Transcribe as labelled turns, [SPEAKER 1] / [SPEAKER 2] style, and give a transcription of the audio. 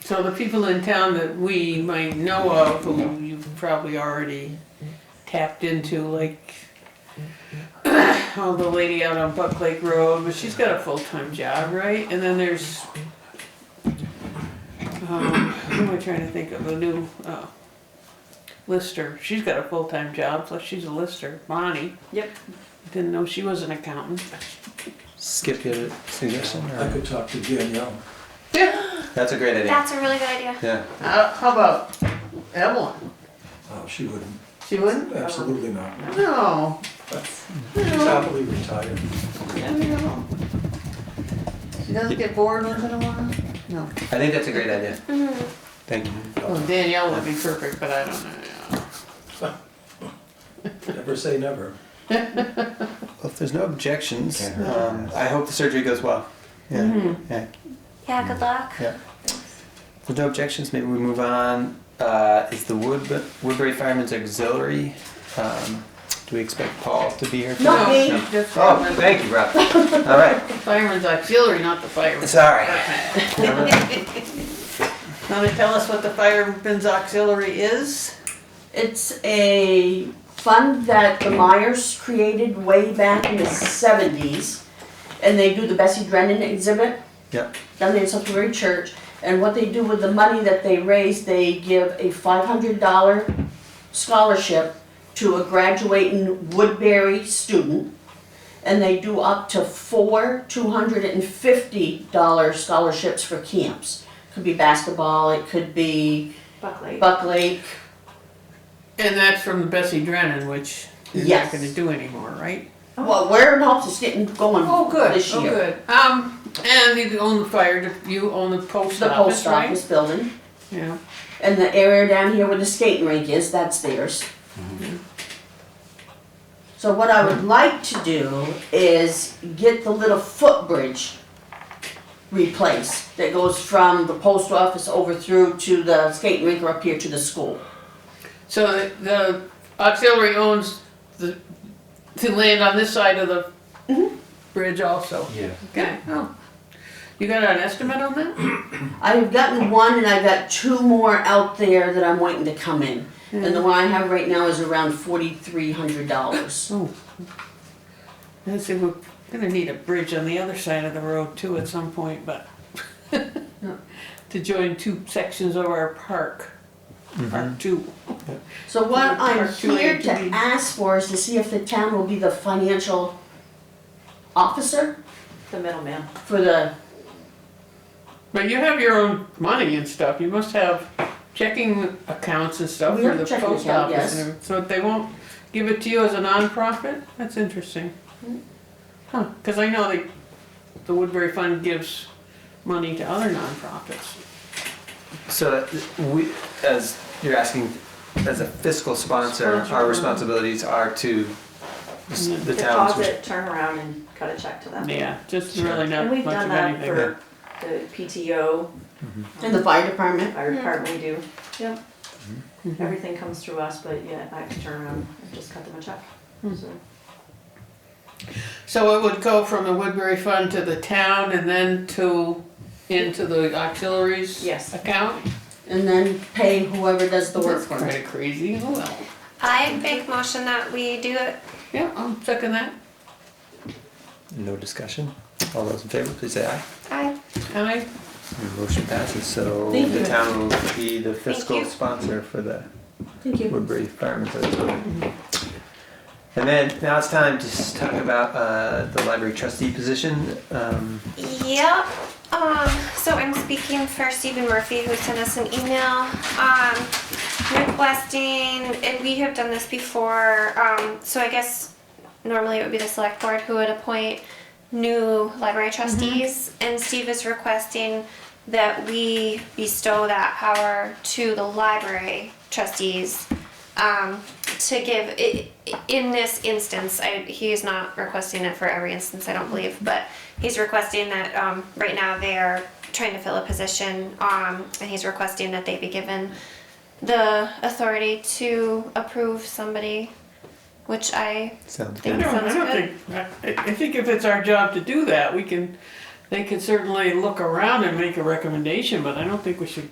[SPEAKER 1] So the people in town that we might know of, who you've probably already tapped into, like, oh, the lady out on Buck Lake Road, but she's got a full-time job, right? And then there's, um, who am I trying to think of, a new, uh, lister, she's got a full-time job, plus she's a lister, Bonnie.
[SPEAKER 2] Yep.
[SPEAKER 1] Didn't know she was an accountant.
[SPEAKER 3] Skip your suggestion.
[SPEAKER 4] I could talk to Danielle.
[SPEAKER 3] That's a great idea.
[SPEAKER 5] That's a really good idea.
[SPEAKER 3] Yeah.
[SPEAKER 6] Uh, how about Evelyn?
[SPEAKER 4] Oh, she wouldn't,
[SPEAKER 6] She wouldn't?
[SPEAKER 4] absolutely not.
[SPEAKER 6] No.
[SPEAKER 4] She's happily retired.
[SPEAKER 6] No. She doesn't get bored once in a while? No.
[SPEAKER 3] I think that's a great idea.
[SPEAKER 5] Mm-hmm.
[SPEAKER 3] Thank you.
[SPEAKER 6] Well, Danielle would be perfect, but I don't know.
[SPEAKER 4] Never say never.
[SPEAKER 3] Well, if there's no objections,
[SPEAKER 7] Can't hurt.
[SPEAKER 3] um, I hope the surgery goes well. Yeah. Yeah.
[SPEAKER 5] Yeah, good luck.
[SPEAKER 3] Yeah. If there's no objections, maybe we move on. Uh, is the Wood Woodbury Firemen's Auxiliary? Um, do we expect Paul to be here? for
[SPEAKER 6] Not
[SPEAKER 3] that?
[SPEAKER 6] me.
[SPEAKER 3] No.
[SPEAKER 6] Just
[SPEAKER 3] Oh,
[SPEAKER 6] Evelyn.
[SPEAKER 3] thank you, Rob. All right.
[SPEAKER 1] Fireman's auxiliary, not the fireman.
[SPEAKER 3] Sorry.
[SPEAKER 1] Want to tell us what the fireman's auxiliary is?
[SPEAKER 2] It's a fund that the Myers created way back in the seventies. And they do the Bessie Drennan exhibit
[SPEAKER 3] Yep.
[SPEAKER 2] down there in Salisbury Church. And what they do with the money that they raise, they give a five hundred dollar scholarship to a graduating Woodbury student. And they do up to four two hundred and fifty dollar scholarships for camps. Could be basketball, it could be
[SPEAKER 5] Buckley.
[SPEAKER 2] Buck Lake,
[SPEAKER 1] And that's from Bessie Drennan, which you're not
[SPEAKER 2] Yes.
[SPEAKER 1] gonna do anymore, right?
[SPEAKER 2] Well, Wareham House is getting going
[SPEAKER 1] Oh,
[SPEAKER 6] Oh,
[SPEAKER 2] this year.
[SPEAKER 1] Um, and you own the fire, de- you own the post
[SPEAKER 2] The
[SPEAKER 1] office,
[SPEAKER 2] post
[SPEAKER 1] right?
[SPEAKER 2] office building
[SPEAKER 1] Yeah,
[SPEAKER 2] and the area down here where the skating rink is, that's theirs. So what I would like to do is get the little footbridge replaced that goes from the post office over through to the skating rink or up here to the school.
[SPEAKER 1] so the- the auxiliary owns the, the land on this side of the bridge also.
[SPEAKER 7] Yeah.
[SPEAKER 1] Okay, oh. You got an estimate on that?
[SPEAKER 2] I have gotten one and I've got two more out there that I'm waiting to come in. And the one I have right now is around forty-three hundred dollars.
[SPEAKER 1] I said, we're gonna need a bridge on the other side of the road too at some point, but to join two sections of our park, Park Two.
[SPEAKER 2] So what
[SPEAKER 1] Or- or
[SPEAKER 2] I'm
[SPEAKER 1] too late
[SPEAKER 2] here
[SPEAKER 1] to
[SPEAKER 2] to
[SPEAKER 1] be-
[SPEAKER 2] ask for is to see if the town will be the financial officer
[SPEAKER 6] The middleman.
[SPEAKER 2] for the,
[SPEAKER 1] But you have your own money and stuff, you must have checking accounts and stuff
[SPEAKER 2] We
[SPEAKER 1] for
[SPEAKER 2] have
[SPEAKER 1] the
[SPEAKER 2] checking
[SPEAKER 1] post
[SPEAKER 2] account,
[SPEAKER 1] office. and
[SPEAKER 2] yes.
[SPEAKER 1] everything. So they won't give it to you as a nonprofit? That's interesting. Huh, cause I know they, the Woodbury Fund gives money to other nonprofits.
[SPEAKER 3] So we, as you're asking, as a fiscal sponsor, Mm-hmm. our responsibilities are to s- the towns.
[SPEAKER 8] deposit, turn around and cut a check to them.
[SPEAKER 1] Yeah, just
[SPEAKER 3] Sure.
[SPEAKER 1] really not
[SPEAKER 8] Oh. And we've
[SPEAKER 1] much
[SPEAKER 8] done
[SPEAKER 1] of
[SPEAKER 8] that
[SPEAKER 1] anything.
[SPEAKER 8] for the PTO,
[SPEAKER 3] Mm-hmm.
[SPEAKER 2] in the fire department.
[SPEAKER 8] fire department, we do. Yep.
[SPEAKER 3] Mm-hmm.
[SPEAKER 8] Everything comes through us, but yeah, I have to turn around and just cut them a check. So
[SPEAKER 1] So it would go from the Woodbury Fund to the town and then to, into the auxiliaries?
[SPEAKER 8] Yes.
[SPEAKER 1] Account?
[SPEAKER 2] And then pay whoever does the work
[SPEAKER 1] That's
[SPEAKER 2] for it.
[SPEAKER 1] kinda crazy, oh well.
[SPEAKER 5] I make motion that we do it.
[SPEAKER 1] Yeah, I'm second that.
[SPEAKER 3] No discussion. All those in favor, please say aye.
[SPEAKER 5] I
[SPEAKER 1] Aye.
[SPEAKER 3] And Motion passes, so
[SPEAKER 2] Thank
[SPEAKER 3] the
[SPEAKER 2] you.
[SPEAKER 3] town will be the fiscal
[SPEAKER 5] you.
[SPEAKER 3] sponsor for the
[SPEAKER 2] Thank you.
[SPEAKER 3] Woodbury Firemen's Auxiliary. And then, now it's time to s- talk about uh, the library trustee position. Um,
[SPEAKER 5] Yep. Um, so I'm speaking for Stephen Murphy, who sent us an email, um, requesting, and we have done this before. Um, so I guess normally it would be the select board who would appoint new library trustees, and Steve is requesting that we bestow that power to the library trustees. Um, to give, i- i- in this instance, I, he is not requesting it for every instance, I don't believe, but he's requesting that, um, right now they're trying to fill a position, um, and he's requesting that they be given the authority to approve somebody, which I
[SPEAKER 3] Sounds
[SPEAKER 1] I
[SPEAKER 3] good.
[SPEAKER 5] Thank-
[SPEAKER 1] don't, I
[SPEAKER 5] Sounds
[SPEAKER 1] don't
[SPEAKER 5] good.
[SPEAKER 1] think, I, I think if it's our job to do that, we can, they can certainly look around and make a recommendation, but I don't think we should